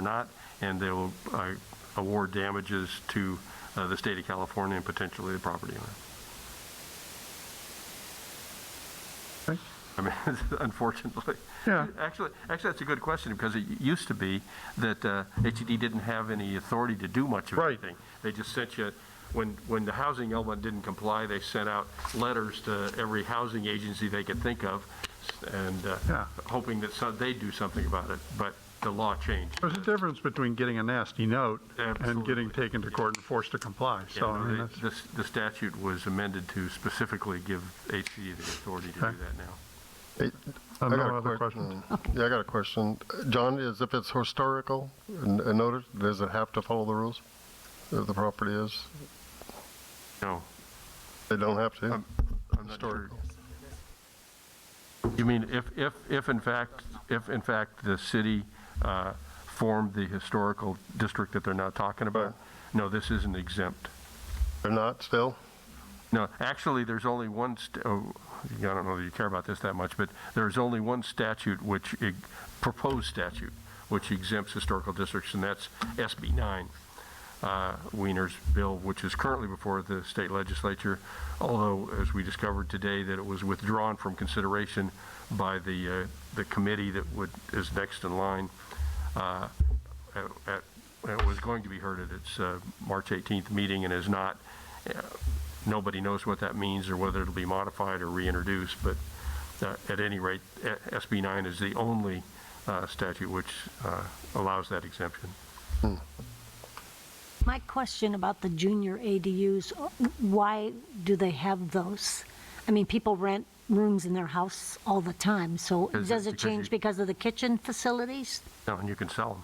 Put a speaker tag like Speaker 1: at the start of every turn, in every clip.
Speaker 1: not, and they will uh, award damages to uh, the state of California and potentially the property owner.
Speaker 2: Okay.
Speaker 1: I mean, unfortunately.
Speaker 2: Yeah.
Speaker 1: Actually, actually, that's a good question, because it used to be that uh, HED didn't have any authority to do much of
Speaker 2: Right.
Speaker 1: anything. They just sent you, when, when the housing element didn't comply, they sent out letters to every housing agency they could think of, and uh,
Speaker 2: Yeah.
Speaker 1: hoping that some, they'd do something about it, but the law changed.
Speaker 2: There's a difference between getting a nasty note and getting
Speaker 1: Absolutely.
Speaker 2: taken to court and forced to comply, so, I
Speaker 1: And
Speaker 2: mean,
Speaker 1: they-
Speaker 2: that's,
Speaker 1: this- The statute was amended to specifically give HED the authority to do
Speaker 2: Okay.
Speaker 1: that now.
Speaker 3: Hey,
Speaker 2: uh,
Speaker 3: I got
Speaker 2: no
Speaker 3: a
Speaker 2: other
Speaker 3: quick-
Speaker 2: questions.
Speaker 3: Yeah, I got a question. John, is if it's historical and and noted, does it have to follow the rules? If the property is,
Speaker 1: No,
Speaker 3: they don't have to?
Speaker 2: Um,
Speaker 1: I'm not sure. You mean if, if, if in fact, if in fact the city uh, formed the historical district that they're now talking about? No, this isn't exempt.
Speaker 3: They're not still?
Speaker 1: No, actually, there's only one, st- oh, I don't know that you care about this that much, but there's only one statute which, e- proposed statute, which exempts historical districts, and that's SB 9, uh, Wiener's bill, which is currently before the state legislature, although, as we discovered today, that it was withdrawn from consideration by the, uh, the committee that would, is next in line. uh, at- at- It was going to be heard at its uh, March 18th meeting and is not, nobody knows what that means or whether it'll be modified or reintroduced, but uh, at any rate, e- SB 9 is the only uh, statute which uh, allows that exemption.
Speaker 4: My question about the junior ADUs, why do they have those? I mean, people rent rooms in their house all the time, so
Speaker 1: Is it
Speaker 4: does it
Speaker 1: because you-
Speaker 4: change because of the kitchen facilities?
Speaker 1: No, and you can sell them.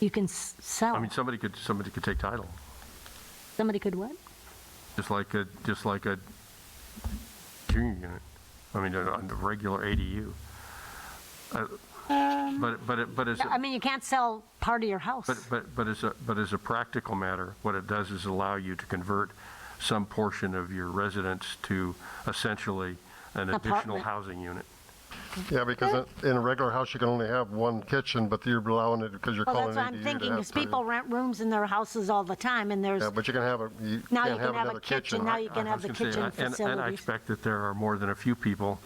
Speaker 4: You can s-
Speaker 1: I
Speaker 4: sell,
Speaker 1: mean, somebody could, somebody could take title,
Speaker 4: somebody could what?
Speaker 1: just like a, just like a junior unit. I mean, a a regular ADU. Uh, But, but, it- but as,
Speaker 4: I mean, you can't sell part of your house.
Speaker 1: But, but, but as a, but as a practical matter, what it does is allow you to convert some portion of your residence to essentially an additional
Speaker 4: Apartment.
Speaker 1: housing unit.
Speaker 3: Yeah, because in in a regular house, you can only have one kitchen, but you're allowing it because you're
Speaker 4: Well,
Speaker 3: calling
Speaker 4: that's
Speaker 3: it ADU
Speaker 4: what I'm
Speaker 3: to
Speaker 4: thinking,
Speaker 3: have
Speaker 4: is
Speaker 3: three.
Speaker 4: people rent rooms in their houses all the time, and there's,
Speaker 3: Yeah, but you can have a, you
Speaker 4: now
Speaker 3: can't have
Speaker 4: you can have
Speaker 3: another
Speaker 4: a kitchen,
Speaker 3: kitchen.
Speaker 4: now
Speaker 3: right?
Speaker 4: you can
Speaker 1: I
Speaker 4: have
Speaker 1: was
Speaker 4: the
Speaker 1: gonna say,
Speaker 4: kitchen
Speaker 1: and- And I
Speaker 4: facilities.
Speaker 1: expect that there are more than a few people,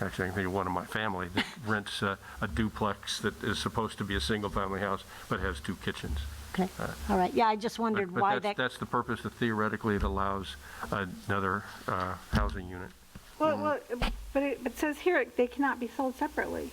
Speaker 1: actually, I can think of one in my family, that rents a a duplex that is supposed to be a single-family house, but has two kitchens.
Speaker 4: Okay, all right, yeah, I just
Speaker 1: uh, But-
Speaker 4: wondered why
Speaker 1: But that's,
Speaker 4: that,
Speaker 1: that's the purpose, that theoretically it allows another uh, housing unit.
Speaker 5: Well, well, but it, but it says here, they cannot be sold separately.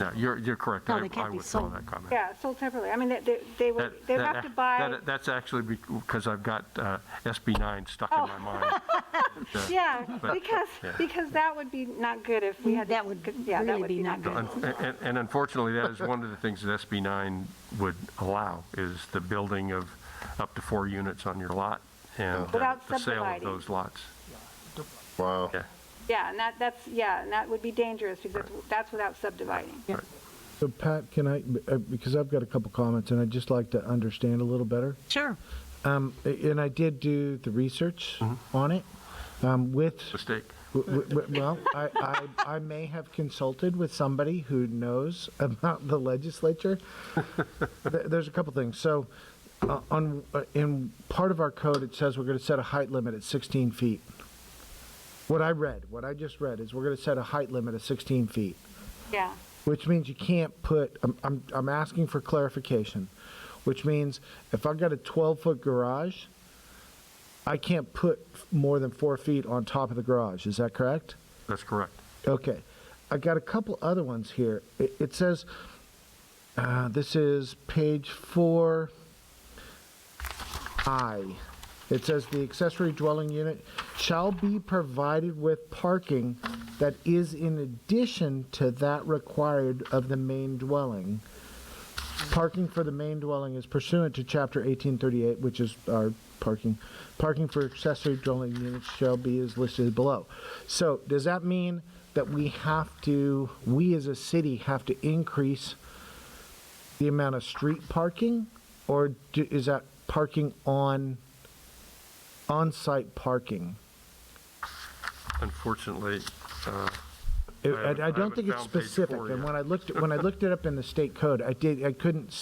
Speaker 1: No, you're, you're correct.
Speaker 4: No,
Speaker 1: I-
Speaker 4: they can't be
Speaker 1: I
Speaker 4: sold.
Speaker 1: withdraw that comment.
Speaker 5: Yeah, sold separately. I mean, they- they, they would,
Speaker 1: That-
Speaker 5: they would
Speaker 1: that-
Speaker 5: have to buy,
Speaker 1: that- uh, That's actually because I've got uh, SB 9 stuck in my mind. Uh,
Speaker 5: Oh. yeah,
Speaker 1: but-
Speaker 5: because,
Speaker 1: yeah.
Speaker 5: because that would be not good if we had.
Speaker 4: that
Speaker 5: to-
Speaker 4: would
Speaker 5: yeah, that
Speaker 4: really
Speaker 5: would
Speaker 4: be not
Speaker 1: so
Speaker 4: good.
Speaker 1: un- And and unfortunately, that is one of the things that SB 9 would allow, is the building of up to four units on your lot and uh,
Speaker 5: Without
Speaker 1: the sale of
Speaker 5: subdividing.
Speaker 1: those lots.
Speaker 3: Wow.
Speaker 1: Yeah.
Speaker 5: Yeah, and that, that's, yeah, and that would be dangerous because that's without subdividing.
Speaker 6: So Pat, can I, uh, because I've got a couple comments and I'd just like to understand a little better.
Speaker 4: Sure.
Speaker 6: Um, a- and I did do the research on it, um, with,
Speaker 1: Mistake.
Speaker 6: w- w- w- well, I, I, I may have consulted with somebody who knows about the legislature. There- There's a couple things. So, uh, on, uh, in part of our code, it says we're gonna set a height limit at sixteen feet. What I read, what I just read is we're gonna set a height limit of sixteen feet.
Speaker 5: Yeah,
Speaker 6: Which means you can't put, I'm, I'm, I'm asking for clarification, which means if I've got a 12-foot garage, I can't put more than four feet on top of the garage, is that correct?
Speaker 1: That's correct.
Speaker 6: Okay. I got a couple other ones here. It, it says, uh, this is page four I. It says the accessory dwelling unit shall be provided with parking that is in addition to that required of the main dwelling. Parking for the main dwelling is pursuant to chapter 1838, which is our parking. Parking for accessory dwelling units shall be as listed below. So does that mean that we have to, we as a city have to increase the amount of street parking? Or do- is that parking on, on-site parking?
Speaker 1: Unfortunately, uh,
Speaker 6: I-
Speaker 1: haven't-
Speaker 6: I
Speaker 1: I
Speaker 6: I don't
Speaker 1: haven't
Speaker 6: think it's
Speaker 1: found page four
Speaker 6: specific.
Speaker 1: yet.
Speaker 6: And when I looked, when I looked it up in the state code, I did, I couldn't